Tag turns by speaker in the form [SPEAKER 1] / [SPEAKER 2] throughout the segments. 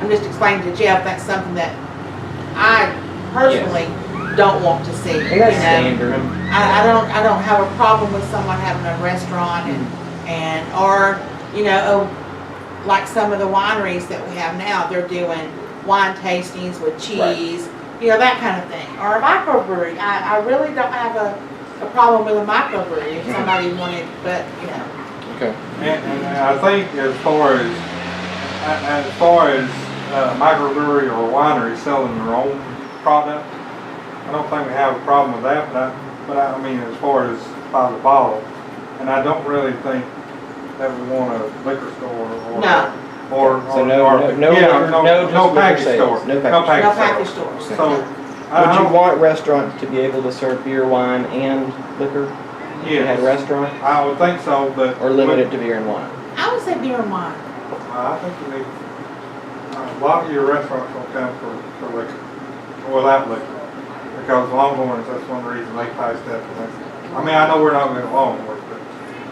[SPEAKER 1] I'm just explaining to Jeff, that's something that I personally don't want to see, you
[SPEAKER 2] And that's
[SPEAKER 1] know?
[SPEAKER 2] standard.
[SPEAKER 1] I, I don't, I don't have a problem with someone having a restaurant and,
[SPEAKER 2] Mm-hmm.
[SPEAKER 1] and, or, you know, oh, like some of the wineries that we have now, they're doing wine tastings with
[SPEAKER 2] Right.
[SPEAKER 1] cheese, you know, that kind of thing. Or a microbrewery, I, I really don't have a, a problem with a microbrewery
[SPEAKER 2] Mm-hmm.
[SPEAKER 1] if somebody wanted, but, you know.
[SPEAKER 2] Okay.
[SPEAKER 3] And, and I think as far as, as far as uh, microbrewery or winery selling their own product, I don't think we have a problem with that, but I, but I mean, as far as by the bottle, and I don't really think that we want a liquor store or.
[SPEAKER 1] No.
[SPEAKER 3] Or, or.
[SPEAKER 2] So no-
[SPEAKER 3] or-
[SPEAKER 2] no- no
[SPEAKER 3] yeah,
[SPEAKER 2] liquor- no just
[SPEAKER 3] No
[SPEAKER 2] liquor
[SPEAKER 3] package
[SPEAKER 2] sales,
[SPEAKER 3] store.
[SPEAKER 2] no package.
[SPEAKER 3] No
[SPEAKER 1] No package
[SPEAKER 3] package store.
[SPEAKER 1] stores.
[SPEAKER 3] So. I- I
[SPEAKER 2] Would you
[SPEAKER 3] don't-
[SPEAKER 2] want restaurants to be able to serve beer, wine, and liquor? If you had a
[SPEAKER 3] Yes.
[SPEAKER 2] restaurant,
[SPEAKER 3] I would think so, but.
[SPEAKER 2] or limit it to beer and wine?
[SPEAKER 1] I would say beer and wine.
[SPEAKER 3] Uh, I think you need, a lot of your restaurants will come for, for liquor, without liquor. Because Longhorns, that's one reason they passed that. for liquor. I mean, I know we're not going to Longhorns, but,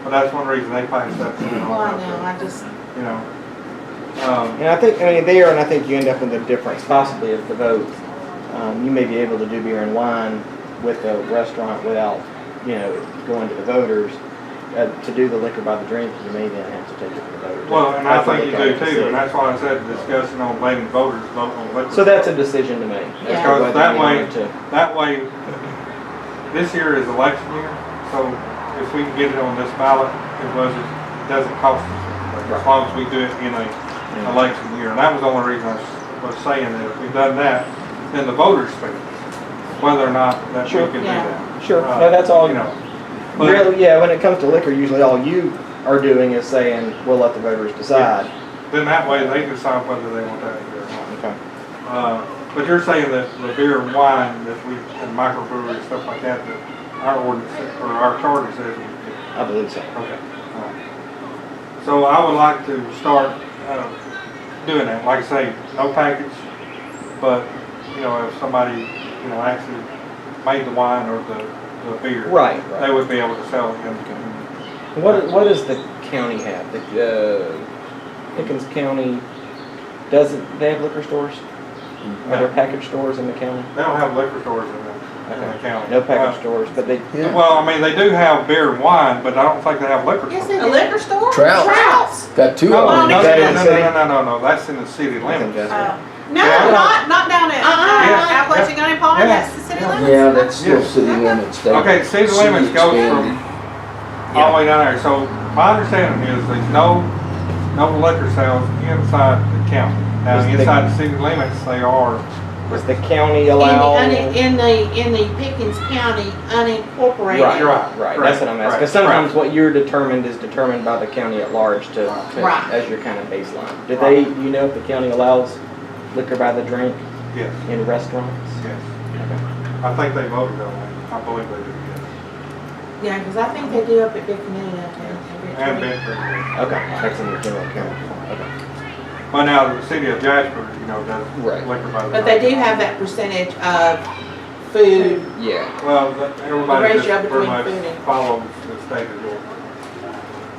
[SPEAKER 3] but that's one reason they passed that. for
[SPEAKER 1] Well, I know,
[SPEAKER 3] liquor,
[SPEAKER 1] I just,
[SPEAKER 3] You know, um,
[SPEAKER 2] And I think, I mean, there, and I think you end up with a difference possibly of the vote. Um, you may be able to do beer and wine with a restaurant without, you know, going to the voters. Uh, to do the liquor by the drink, you may then have to take it to the voters.
[SPEAKER 3] well, and I
[SPEAKER 2] That's a
[SPEAKER 3] think you
[SPEAKER 2] look at
[SPEAKER 3] do
[SPEAKER 2] it
[SPEAKER 3] too, and
[SPEAKER 2] see.
[SPEAKER 3] that's why I said discussing on letting voters vote on liquor.
[SPEAKER 2] So that's a decision to make. as to
[SPEAKER 1] Yeah.
[SPEAKER 3] Because
[SPEAKER 2] whether
[SPEAKER 3] that
[SPEAKER 2] you
[SPEAKER 3] way-
[SPEAKER 2] want to-
[SPEAKER 3] That way, this year is election year, so if we can get it on this ballot, it was, it doesn't cost us. As long as we do it in a election year, and that was the only reason I s- was saying that if we've done that, then the voters speak, whether or not that we
[SPEAKER 2] Sure.
[SPEAKER 3] can do
[SPEAKER 1] Yeah.
[SPEAKER 3] that.
[SPEAKER 2] Sure,
[SPEAKER 3] Uh,
[SPEAKER 2] no, that's all,
[SPEAKER 3] You know, but
[SPEAKER 2] Really, yeah, when it comes to liquor, usually all you are doing is saying, we'll let the voters decide.
[SPEAKER 3] then that way they decide whether they want that here or not.
[SPEAKER 2] Okay.
[SPEAKER 3] Uh, But you're saying that the beer and wine that we, and microbrewery and stuff like that, that our ordinance, or our charter says we can do.
[SPEAKER 2] I believe so.
[SPEAKER 3] Okay. all right. So I would like to start uh, doing that, like I say, no package, but, you know, if somebody, you know, actually made the wine or the, the beer.
[SPEAKER 2] Right, right.
[SPEAKER 3] They would be able to sell it in,
[SPEAKER 2] What, what does the county have? The, uh, Pickens County, doesn't, they have liquor stores? Are there package stores in the county?
[SPEAKER 3] they don't have liquor stores in the, in the
[SPEAKER 2] Okay.
[SPEAKER 3] county.
[SPEAKER 2] No package stores, but they,
[SPEAKER 3] Uh, Well, I mean, they do have beer and wine, but I don't think they have liquor
[SPEAKER 1] yes,
[SPEAKER 3] stores.
[SPEAKER 1] a liquor store?
[SPEAKER 4] Trout.
[SPEAKER 1] Trouts.
[SPEAKER 4] Got two
[SPEAKER 3] No,
[SPEAKER 4] of
[SPEAKER 3] no,
[SPEAKER 4] them.
[SPEAKER 3] no,
[SPEAKER 2] Is that
[SPEAKER 3] no,
[SPEAKER 2] in the
[SPEAKER 3] no,
[SPEAKER 2] city?
[SPEAKER 3] no, no, no, no, that's in the city
[SPEAKER 2] I think
[SPEAKER 3] limits.
[SPEAKER 2] that's-
[SPEAKER 1] No,
[SPEAKER 3] Yeah.
[SPEAKER 1] not, not down at,
[SPEAKER 3] Yeah.
[SPEAKER 1] uh-uh, Appalachian County Park,
[SPEAKER 3] Yeah.
[SPEAKER 1] that's the city limits.
[SPEAKER 4] Yeah, that's still
[SPEAKER 3] Yeah.
[SPEAKER 4] city limits. They-
[SPEAKER 3] Okay, city limits goes from all the way down there, so my understanding is there's no, no liquor sales inside the county. Now,
[SPEAKER 2] Is the-
[SPEAKER 3] inside the city limits, they are,
[SPEAKER 2] does the county
[SPEAKER 1] In the,
[SPEAKER 2] allow?
[SPEAKER 1] une- in the, in the Pickens County unincorporated.
[SPEAKER 2] Right,
[SPEAKER 3] You're right,
[SPEAKER 2] right, that's what I'm asking. Because
[SPEAKER 3] right, right.
[SPEAKER 2] sometimes what you're determined is determined by the county at large to, to-
[SPEAKER 1] Right.
[SPEAKER 2] as your kind of baseline. Do they, you know if the county allows liquor by the drink
[SPEAKER 3] yes,
[SPEAKER 2] in restaurants?
[SPEAKER 3] yes. I think they voted on that, I believe they did, yes.
[SPEAKER 1] Yeah, because I think they do up at Big Canyon up there.
[SPEAKER 3] And Benford.
[SPEAKER 2] Okay, that's in the general county, okay.
[SPEAKER 3] Well, now, the city of Jasper, you know, does
[SPEAKER 2] Right.
[SPEAKER 3] liquor by the.
[SPEAKER 1] But they do have that percentage of food,
[SPEAKER 2] Yeah,
[SPEAKER 3] Well, that- everybody just
[SPEAKER 1] ratio
[SPEAKER 3] pretty
[SPEAKER 1] between
[SPEAKER 3] much
[SPEAKER 1] food and-
[SPEAKER 3] follows the state of Georgia.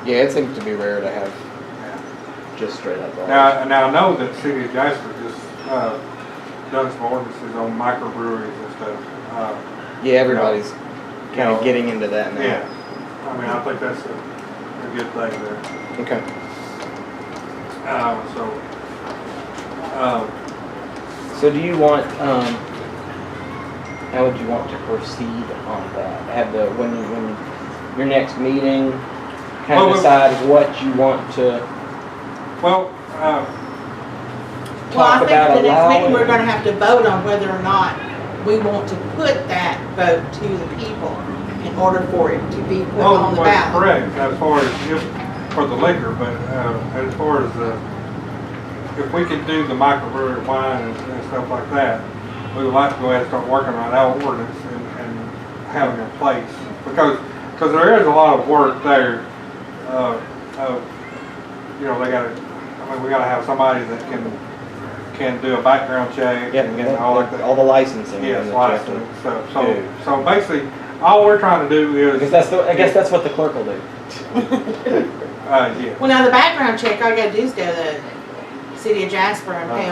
[SPEAKER 2] yeah, it seems to be rare to have
[SPEAKER 3] Yeah.
[SPEAKER 2] just straight up. bars.
[SPEAKER 3] Now, now I know that City of Jasper just, uh, done some ordinances on microbreweries and stuff. Uh,
[SPEAKER 2] Yeah, everybody's kind
[SPEAKER 3] No.
[SPEAKER 2] of getting into that
[SPEAKER 3] yeah,
[SPEAKER 2] now.
[SPEAKER 3] I mean, I think that's a, a good thing there.
[SPEAKER 2] Okay.
[SPEAKER 3] Um, so, um,
[SPEAKER 2] So do you want, um, how would you want to proceed on that? Have the, when, you- when your next meeting, kind of
[SPEAKER 3] Well, we-
[SPEAKER 2] decide what you want to,
[SPEAKER 3] well, uh,
[SPEAKER 1] well, I
[SPEAKER 2] Talk
[SPEAKER 1] think at
[SPEAKER 2] about
[SPEAKER 1] the next meeting,
[SPEAKER 2] allowing-
[SPEAKER 1] we're gonna have to vote on whether or not we want to put that vote to the people in order for it to be put
[SPEAKER 3] well,
[SPEAKER 1] on
[SPEAKER 3] was
[SPEAKER 1] the ballot.
[SPEAKER 3] correct as far as if, for the liquor, but, uh, as far as the, if we could do the microbrewery wine and, and stuff like that, we would like to go ahead and start working on our ordinance and, and having a place. Because, because there is a lot of work there, uh, of, you know, they gotta, I mean, we gotta have somebody that can, can do a background check
[SPEAKER 2] yeah,
[SPEAKER 3] and and all like
[SPEAKER 2] all
[SPEAKER 3] that.
[SPEAKER 2] the licensing.
[SPEAKER 3] Yes,
[SPEAKER 2] and the
[SPEAKER 3] license
[SPEAKER 2] checking.
[SPEAKER 3] and stuff.
[SPEAKER 2] do.
[SPEAKER 3] So, so basically, all we're trying to do is.
[SPEAKER 2] Because that's the, I guess that's what the clerk will do.
[SPEAKER 3] Uh, yeah. uh,
[SPEAKER 1] Well, now the background check, all you gotta do is go to the city of Jasper and pay
[SPEAKER 2] Uh-huh.